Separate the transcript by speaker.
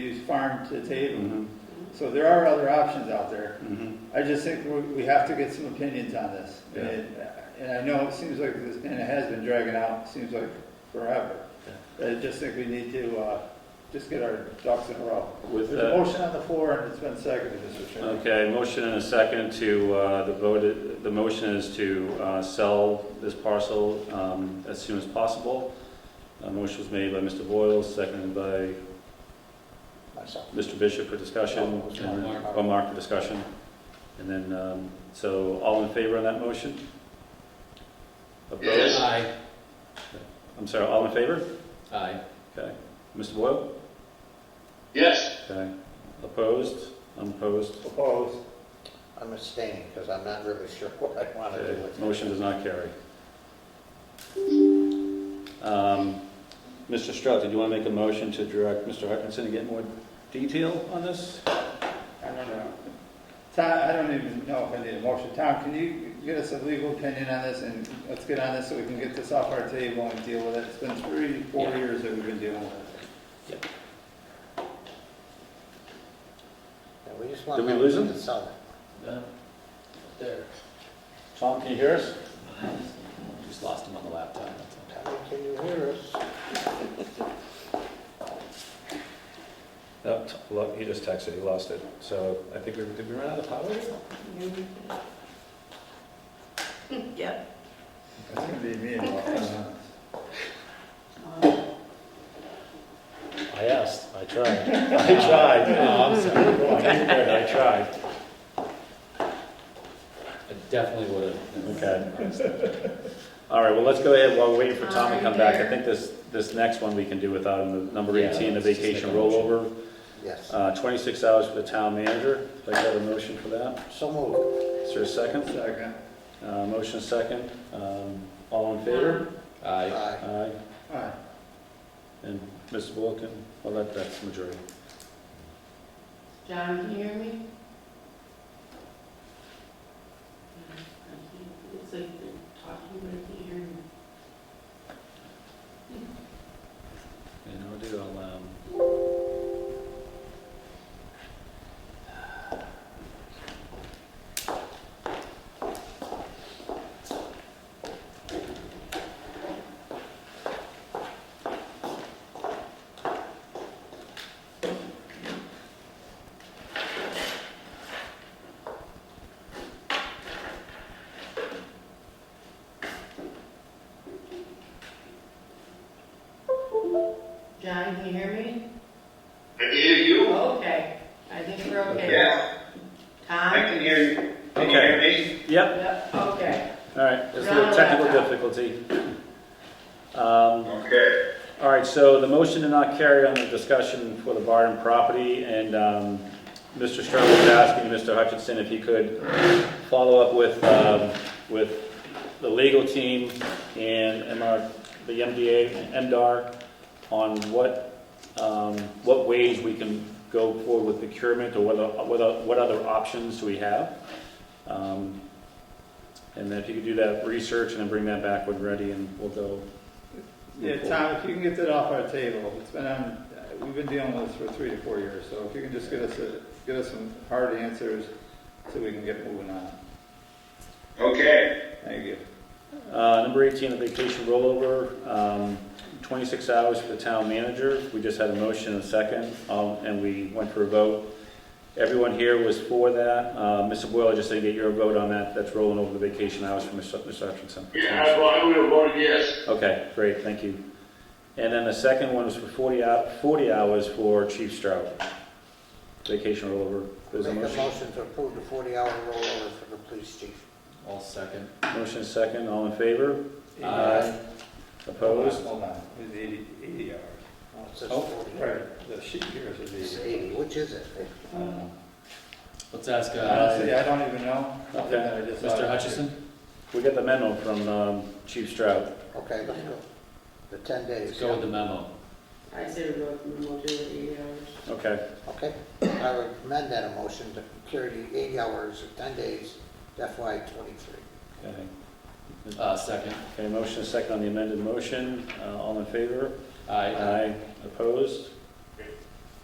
Speaker 1: farm to table.
Speaker 2: Mhm,
Speaker 1: So there are other options out there.
Speaker 2: mhm.
Speaker 1: I just think we, we have to get some opinions on this.
Speaker 2: Yeah.
Speaker 1: And, and I know it seems like this, and it has been dragging out, seems like forever. I just think we need to, uh, just get our ducks in a row.
Speaker 2: With
Speaker 1: There's
Speaker 2: that-
Speaker 1: a motion on the floor and it's been seconded, Mr. Chairman.
Speaker 2: Okay, motion and a second to, uh, the vote, the motion is to uh, sell this parcel um, as soon as possible. A motion was made by Mr. Boyle, seconded by
Speaker 3: myself.
Speaker 2: Mr. Bishop for discussion.
Speaker 3: Oh, it's
Speaker 2: and-
Speaker 3: Mark.
Speaker 2: Oh, Mark for discussion. And then, um, so all in favor on that motion? Opposed?
Speaker 3: Aye.
Speaker 2: I'm sorry, all in favor?
Speaker 3: Aye.
Speaker 2: Okay. Mr. Boyle?
Speaker 4: Yes,
Speaker 2: Okay. Opposed? Unopposed?
Speaker 1: Opposed?
Speaker 3: I'm abstaining because I'm not really sure what I want to do
Speaker 2: Okay,
Speaker 3: with it.
Speaker 2: Uh, Motion does not carry. Um, Mr. Strout, did you want to make a motion to direct Mr. Hutchinson to get more detail on this?
Speaker 1: I don't know. Tom, I don't even know if I need a motion. Tom, can you get us a legal opinion on this and let's get on this so we can get this off our table and deal with it? It's been three, four
Speaker 2: Yeah.
Speaker 1: years that we've been dealing with it.
Speaker 3: And We just want
Speaker 2: Did we lose
Speaker 3: them
Speaker 2: him?
Speaker 3: to sell it.
Speaker 5: There.
Speaker 2: Tom, can you hear us? Just lost him on the laptop.
Speaker 3: Tommy, can you hear us?
Speaker 2: Nope, lo- Oh, he just texted, he lost it. So I think we, did we run out of power?
Speaker 6: Yep.
Speaker 1: It's gonna be me and Rob.
Speaker 5: I asked, I tried. I tried.
Speaker 2: Oh,
Speaker 5: No, I'm sorry. I didn't hear it, I tried. I definitely would have.
Speaker 2: Okay. All right, well, let's go ahead while we're waiting for Tom to come back. I think this, this next one we can do without him, The number
Speaker 5: Yeah,
Speaker 2: 18, the
Speaker 5: let's just make
Speaker 2: vacation
Speaker 5: a motion.
Speaker 2: rollover.
Speaker 3: Yes.
Speaker 2: Uh, 26 hours for the town manager. Do I have a motion for that?
Speaker 3: So moved.
Speaker 2: Is there a second?
Speaker 1: Second.
Speaker 2: Uh, Motion second. Um, All in favor?
Speaker 5: Aye.
Speaker 3: Aye.
Speaker 2: Aye.
Speaker 1: All right.
Speaker 2: And Mr. Wilkin? Well, that, that's majority.
Speaker 6: John, can you hear me? It's like they're talking, but I can't hear me.
Speaker 2: And I'll do, I'll, um...
Speaker 6: John, can you hear me?
Speaker 4: I can hear you.
Speaker 6: Okay, I think we're okay.
Speaker 4: Yeah. I
Speaker 6: Tom?
Speaker 4: can hear you. Can you hear me?
Speaker 2: Yep,
Speaker 6: Yep, okay.
Speaker 2: all right. There's a little technical difficulty. Um,
Speaker 4: Okay.
Speaker 2: All right, so the motion to not carry on the discussion for the Barden property, and um, Mr. Stern was asking Mr. Hutchinson if he could follow up with, um, with the legal team and MR, the MDA, and MDR, on what, um, what ways we can go forward with procurement, or what, o- what o- what other options do we have? Um, And then if you could do that research and then bring that back when ready, and we'll go.
Speaker 1: Yeah, Tom, if you can get that off our table, it's been on, uh, we've been dealing with this for three to four years, so if you can just get us, a- get us some hard answers so we can get moving on.
Speaker 4: Okay.
Speaker 1: Thank you.
Speaker 2: Uh, Number 18, the vacation rollover, um, 26 hours for the town manager. We just had a motion and a second, um, and we went for a vote. Everyone here was for that. Uh, Mr. Boyle, I just didn't get your vote on that. That's rolling over the vacation hours for Mr. Mr. Hutchinson.
Speaker 4: Yeah, well, I would have voted yes.
Speaker 2: Okay, great, thank you. And then the second one was for 40 hou- 40 hours for Chief Stroud. Vacation rollover. There's a
Speaker 3: Make a
Speaker 2: motion.
Speaker 3: motion to approve the 40-hour rollover for the police chief.
Speaker 5: All second.
Speaker 2: Motion and second, all in favor?
Speaker 5: Aye.
Speaker 2: Opposed?
Speaker 1: Hold on, it's eighty, eighty hours.
Speaker 3: Oh, it says
Speaker 5: Oh,
Speaker 3: 40.
Speaker 1: Right, the sheet here says
Speaker 3: It's
Speaker 1: eighty.
Speaker 3: 80, which is it?
Speaker 5: Let's ask, uh,
Speaker 1: Honestly, I don't even know.
Speaker 2: Okay.
Speaker 1: I just thought-
Speaker 5: Mr. Hutchison?
Speaker 2: We got the memo from um, Chief Stroud.
Speaker 3: Okay, let's go. The 10
Speaker 5: Let's
Speaker 3: days.
Speaker 5: go with the memo.
Speaker 6: I said we're going to do it eight hours.
Speaker 2: Okay,
Speaker 3: Okay, I would amend that motion to carry the 80 hours, or 10 days, FY '23.
Speaker 2: okay.
Speaker 5: Uh, second.
Speaker 2: Okay, motion is second on the amended motion. Uh, All in favor?
Speaker 5: Aye.
Speaker 2: Opposed?